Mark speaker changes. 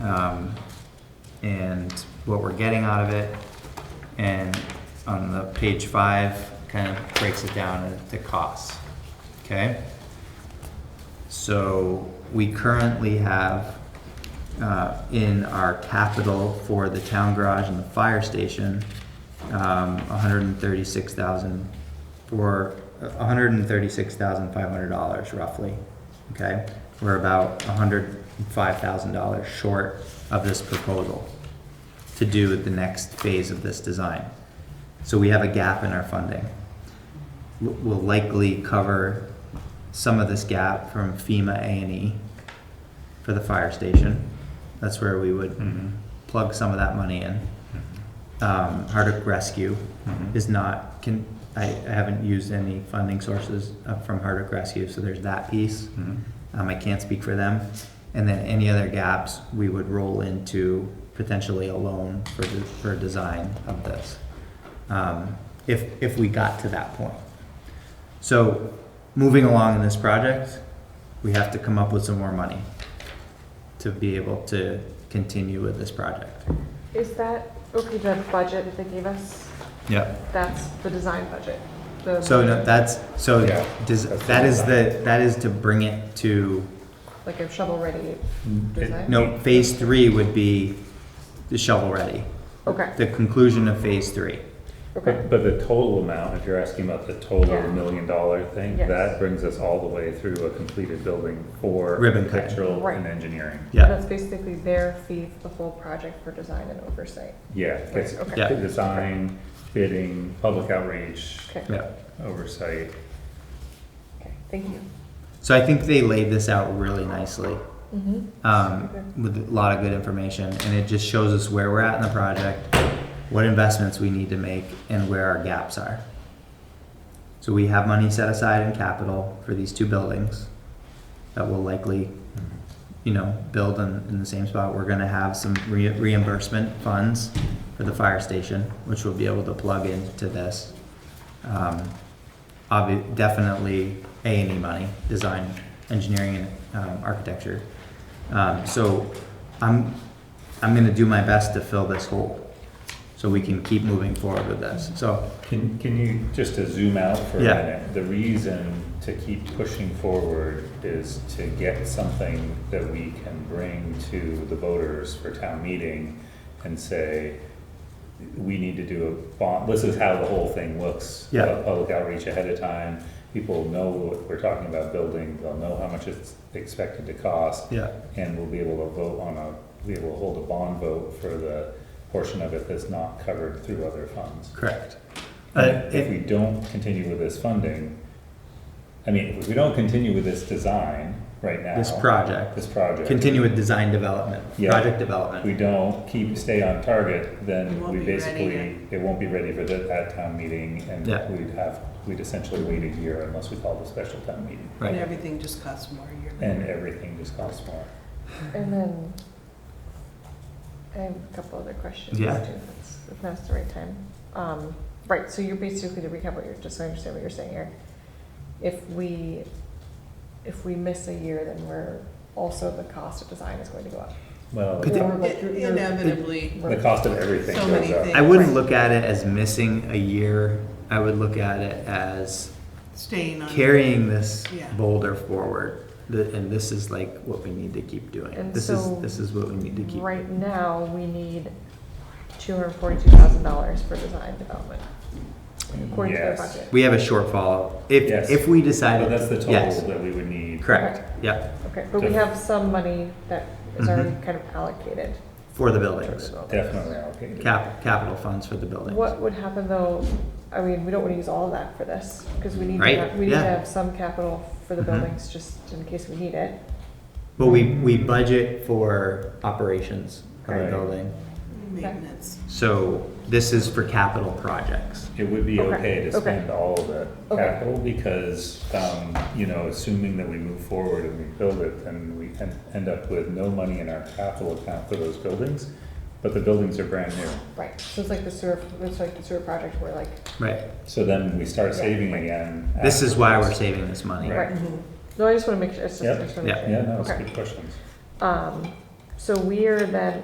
Speaker 1: um, and what we're getting out of it. And on the page five, kind of breaks it down into costs, okay? So we currently have, uh, in our capital for the town garage and the fire station, um, hundred and thirty-six thousand for, hundred and thirty-six thousand five hundred dollars roughly, okay? We're about hundred and five thousand dollars short of this proposal to do the next phase of this design. So we have a gap in our funding. W- We'll likely cover some of this gap from FEMA A and E for the fire station. That's where we would plug some of that money in. Um, Hardwick Rescue is not, can, I, I haven't used any funding sources uh, from Hardwick Rescue, so there's that piece. Um, I can't speak for them. And then any other gaps, we would roll into potentially a loan for, the- for design of this. Um, if, if we got to that point. So, moving along in this project, we have to come up with some more money to be able to continue with this project.
Speaker 2: Is that, okay, the budget that they gave us,
Speaker 1: Yep.
Speaker 2: that's the design budget? the-
Speaker 1: So no, that's, so
Speaker 3: Yeah,
Speaker 1: does,
Speaker 3: that's
Speaker 1: that
Speaker 3: the
Speaker 1: is
Speaker 3: design.
Speaker 1: the, that is to bring it to,
Speaker 2: Like a shovel-ready design?
Speaker 1: no, phase three would be the shovel-ready,
Speaker 2: Okay,
Speaker 1: the conclusion of phase three.
Speaker 2: okay,
Speaker 3: But, but the total amount, if you're asking about the total
Speaker 2: Yeah.
Speaker 3: million dollar thing,
Speaker 2: Yes.
Speaker 3: that brings us all the way through a completed building for
Speaker 1: Ribbon cutting.
Speaker 3: architectural
Speaker 2: Right.
Speaker 3: and engineering.
Speaker 1: Yeah,
Speaker 2: that's basically their fee for the whole project for design and oversight.
Speaker 3: Yeah, it's
Speaker 2: Right, okay.
Speaker 1: Yeah.
Speaker 3: the design, bidding, public outreach,
Speaker 2: Okay,
Speaker 1: yeah.
Speaker 3: oversight.
Speaker 2: okay, thank you.
Speaker 1: So I think they laid this out really nicely.
Speaker 2: Mm-hmm.
Speaker 1: um, with a lot of good information, and it just shows us where we're at in the project, what investments we need to make, and where our gaps are. So we have money set aside in capital for these two buildings that will likely, you know, build in, in the same spot. We're gonna have some re- reimbursement funds for the fire station, which we'll be able to plug into this. Um, obvi- definitely A and E money, design, engineering, and um, architecture. Um, so I'm, I'm gonna do my best to fill this hole, so we can keep moving forward with this. So,
Speaker 3: Can, can you, just to zoom out for a
Speaker 1: Yeah.
Speaker 3: minute, the reason to keep pushing forward is to get something that we can bring to the voters for town meeting and say, we need to do a bond, this is how the whole thing looks.
Speaker 1: Yeah.
Speaker 3: uh, Public outreach ahead of time, people know what we're talking about building, they'll know how much it's expected to cost
Speaker 1: yeah,
Speaker 3: and we'll be able to vote on a, be able to hold a bond vote for the portion of it that's not covered through other funds.
Speaker 1: correct. Uh,
Speaker 3: And If we
Speaker 1: it-
Speaker 3: don't continue with this funding, I mean, if we don't continue with this design right now.
Speaker 1: This project.
Speaker 3: This project,
Speaker 1: Continue with design development,
Speaker 3: Yeah.
Speaker 1: project
Speaker 3: if we
Speaker 1: development.
Speaker 3: don't keep, stay on target,
Speaker 4: It
Speaker 3: then
Speaker 4: won't
Speaker 3: we
Speaker 4: be ready
Speaker 3: basically, it won't be ready for the, that town meeting and
Speaker 1: Yeah.
Speaker 3: we'd have, we'd essentially wait a year unless we called a special town meeting.
Speaker 4: And
Speaker 1: Right,
Speaker 4: everything just costs more a year.
Speaker 3: And everything just costs more.
Speaker 2: And then, I have a couple other questions too,
Speaker 1: Yeah.
Speaker 2: if that's- if now's the right time. Um, right, so you're basically, to recap what you're, just so I understand what you're saying, Eric, if we, if we miss a year, then we're, also the cost of design is going to go up.
Speaker 3: Well,
Speaker 1: But the-
Speaker 2: Or like
Speaker 4: It-
Speaker 2: you're- you're-
Speaker 4: Inevitably,
Speaker 3: the cost of everything
Speaker 4: So
Speaker 3: goes
Speaker 4: many
Speaker 3: up.
Speaker 4: things.
Speaker 1: I wouldn't look at it as missing a year, I would look at it as
Speaker 4: staying on.
Speaker 1: carrying this
Speaker 4: Yeah.
Speaker 1: boulder forward. The- And this is like what we need to keep doing,
Speaker 2: And
Speaker 1: this is,
Speaker 2: so
Speaker 1: this is what we need to keep.
Speaker 2: Right now, we need two hundred forty-two thousand dollars for design development, according to their
Speaker 3: Yes.
Speaker 2: budget.
Speaker 1: We have a shortfall, if,
Speaker 3: Yes.
Speaker 1: if we
Speaker 3: But
Speaker 1: decided,
Speaker 3: that's the
Speaker 1: yes,
Speaker 3: total that we would need.
Speaker 1: correct, yep.
Speaker 2: Okay, but we
Speaker 3: Def-
Speaker 2: have some money that is already kind of allocated.
Speaker 1: Mm-hmm. For the
Speaker 2: for the
Speaker 1: buildings,
Speaker 2: building.
Speaker 3: Definitely allocated.
Speaker 1: cap, capital funds for the buildings.
Speaker 2: What would happen though, I mean, we don't wanna use all of that for this, because we need to
Speaker 1: Right,
Speaker 2: have, we need to
Speaker 1: yeah.
Speaker 2: have some capital for the
Speaker 1: Mhm.
Speaker 2: buildings, just in case we need it.
Speaker 1: But we, we budget for operations of a
Speaker 3: Right.
Speaker 1: building,
Speaker 4: Maintenance.
Speaker 1: so this is for capital projects.
Speaker 3: It would be
Speaker 2: Okay,
Speaker 3: okay to
Speaker 2: okay.
Speaker 3: spend all of the
Speaker 2: Okay.
Speaker 3: capital because, um, you know, assuming that we move forward and we build it, then we can end up with no money in our capital account for those buildings, but the buildings are brand new.
Speaker 2: Right, so it's like the sewer, it's like the sewer project where like,
Speaker 1: Right,
Speaker 3: So then we start saving again.
Speaker 1: this is why we're
Speaker 3: afterwards.
Speaker 1: saving this money.
Speaker 2: right, no, I just wanna make sure, it's just, I
Speaker 3: Yep.
Speaker 2: just wanna make
Speaker 1: Yeah.
Speaker 2: sure.
Speaker 3: Yeah, no, it's
Speaker 2: Okay.
Speaker 3: good questions.
Speaker 2: Um, So we are then